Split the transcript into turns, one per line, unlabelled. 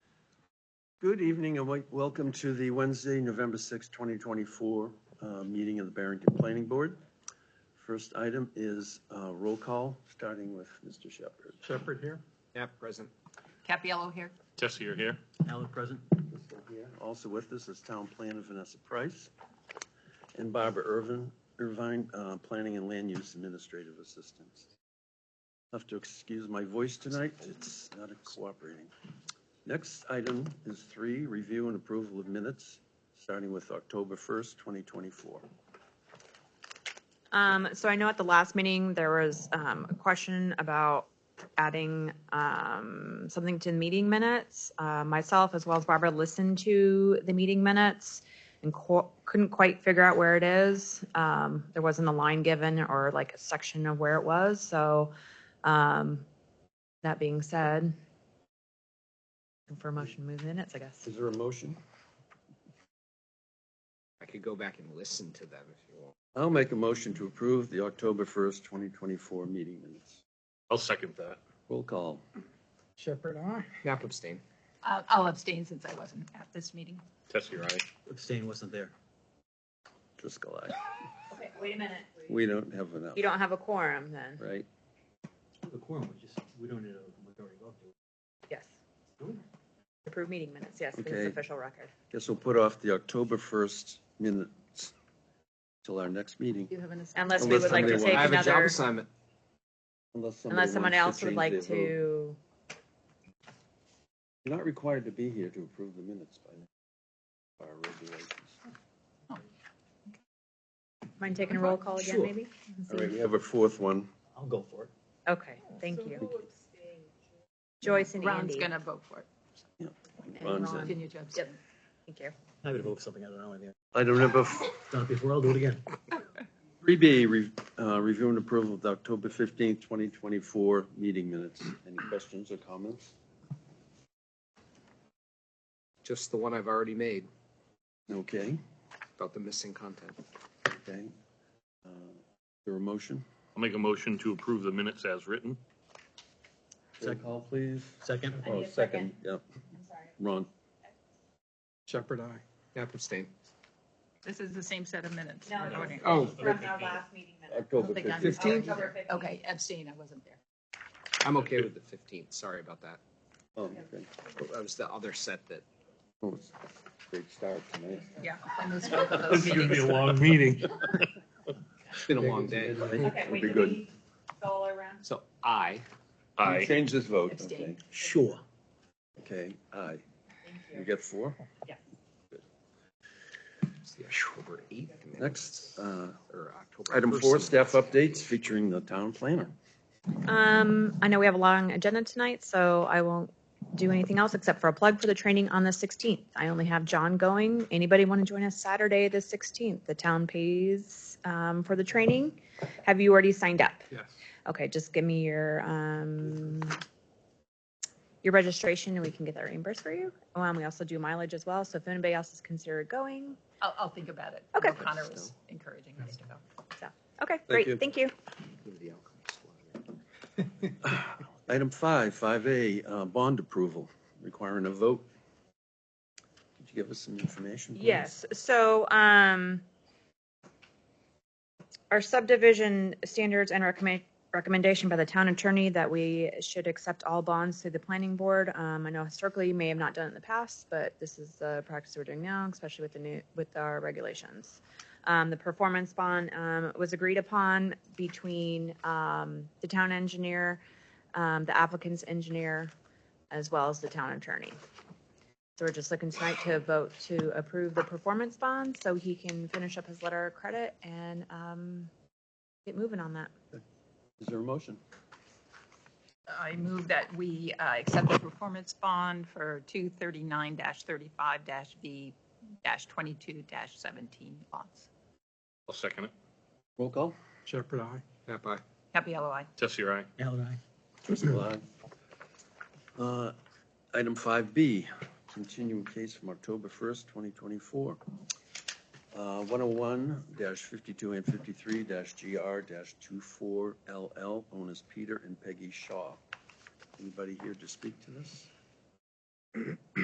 Good evening and wel- welcome to the Wednesday, November 6, 2024, uh, meeting of the Barrington Planning Board. First item is uh, roll call, starting with Mr. Shepherd.
Shepherd here?
Yeah, present.
Capiello here.
Jesse, you're here.
Allen present.
Also with us is Town Planner Vanessa Price and Barbara Irvin, Irvine, uh, Planning and Land Use Administrative Assistants. Have to excuse my voice tonight, it's not cooperating. Next item is three, review and approval of minutes, starting with October 1st, 2024.
Um, so I know at the last meeting, there was, um, a question about adding, um, something to the meeting minutes. Uh, myself, as well as Barbara, listened to the meeting minutes and co- couldn't quite figure out where it is. Um, there wasn't a line given or like a section of where it was, so, um, that being said, for a motion, to move the minutes, I guess.
Is there a motion?
I could go back and listen to them if you want.
I'll make a motion to approve the October 1st, 2024 meeting minutes.
I'll second that.
Roll call.
Shepherd, aye.
Knapp abstain.
Uh, I'll abstain since I wasn't at this meeting.
Jesse, you're right.
Abstain wasn't there.
Driscoll, aye.
Okay, wait a minute.
We don't have enough,
You don't have a quorum then?
right?
The quorum, we just, we don't need a majority vote.
Yes.
do we?
Approved meeting minutes, yes, this
Okay.
is official record.
Guess we'll put off the October 1st minutes till our next meeting,
You have an assignment?
Unless we
Unless
would like to
somebody
take
I have a job
another,
assignment.
unless somebody
unless someone
wants
else
to
would
change
like
their vote.
to,
You're not required to be here to approve the minutes by our regulations.
mind taking a roll call again,
Sure.
maybe?
All right, we have a fourth one.
I'll go for it.
Okay, thank you. Joyce and
Ron's
Andy,
gonna vote for it.
Ron's
Ron.
in.
Continue to abstain.
thank you.
Happy to vote for something, I don't know anything.
Item number
Done it before, I'll do it again.
3B, re- uh, review and approval of the October 15th, 2024 meeting minutes. Any questions or comments?
Just the one I've already made
Okay,
about the missing content.
okay. Uh, There a motion?
I'll make a motion to approve the minutes as written.
Roll
Second.
call, please.
Second,
Oh, second, yep. Ron,
Shepherd, aye.
Knapp abstain.
This is the same set of minutes.
No,
We're
no.
voting.
Oh,
meeting
October
think I'm-
15th.
Fifteen?
Okay, abstain, I wasn't there.
I'm okay with the fifteenth. Sorry about that.
Oh, okay.
That was the other set that.
Oh, it's a Great start tonight.
Yeah. I missed both of those meetings.
long meeting.
It's been a long day.
It'll be good.
all around?
So I.
Aye.
Change this vote.
Abstain.
Sure.
Okay, aye. You get four?
It's the October eighth. minutes,
Next, uh,
Or October.
item
1st
four,
minutes.
staff updates featuring the town planner.
Um, I know we have a long agenda tonight, so I won't do anything else except for a plug for the training on the 16th. I only have John going. Anybody want to join us Saturday, the 16th? The town pays um, for the training. Have you already signed up?
Yes.
Okay, just give me your, um, your registration and we can get that reimbursed for you. Oh, and we also do mileage as well, so if anybody else is considered going,
I'll, I'll think about it.
Okay.
Connor was encouraging us to go.
so, okay, great,
you.
thank you.
The outcome is slow.
Item five, five A, uh, bond approval, requiring a vote. Could you give us some information? please?
Yes, so, um, our subdivision standards and recommend, recommendation by the town attorney that we should accept all bonds through the planning board. Um, I know historically you may have not done it in the past, but this is the practice we're doing now, especially with the new, with our regulations. Um, the performance bond, um, was agreed upon between, um, the town engineer, um, the applicant's engineer, as well as the town attorney. So we're just looking tonight to vote to approve the performance bond so he can finish up his letter of credit and um, get moving on that.
Is there a motion?
I move that we uh, accept the performance bond for 239-35-V-22-17 lots.
I'll second it.
Roll call?
Shepherd, aye.
Knapp, aye.
Happy LOI.
Jesse, you're right.
Allen, aye.
Driscoll, aye. Uh, Item five B, continuing case from October first, twenty twenty-four. One oh one fifty-two and fifty-three GR 24 LL, owners Peter and Peggy Shaw. Anybody here to speak to this?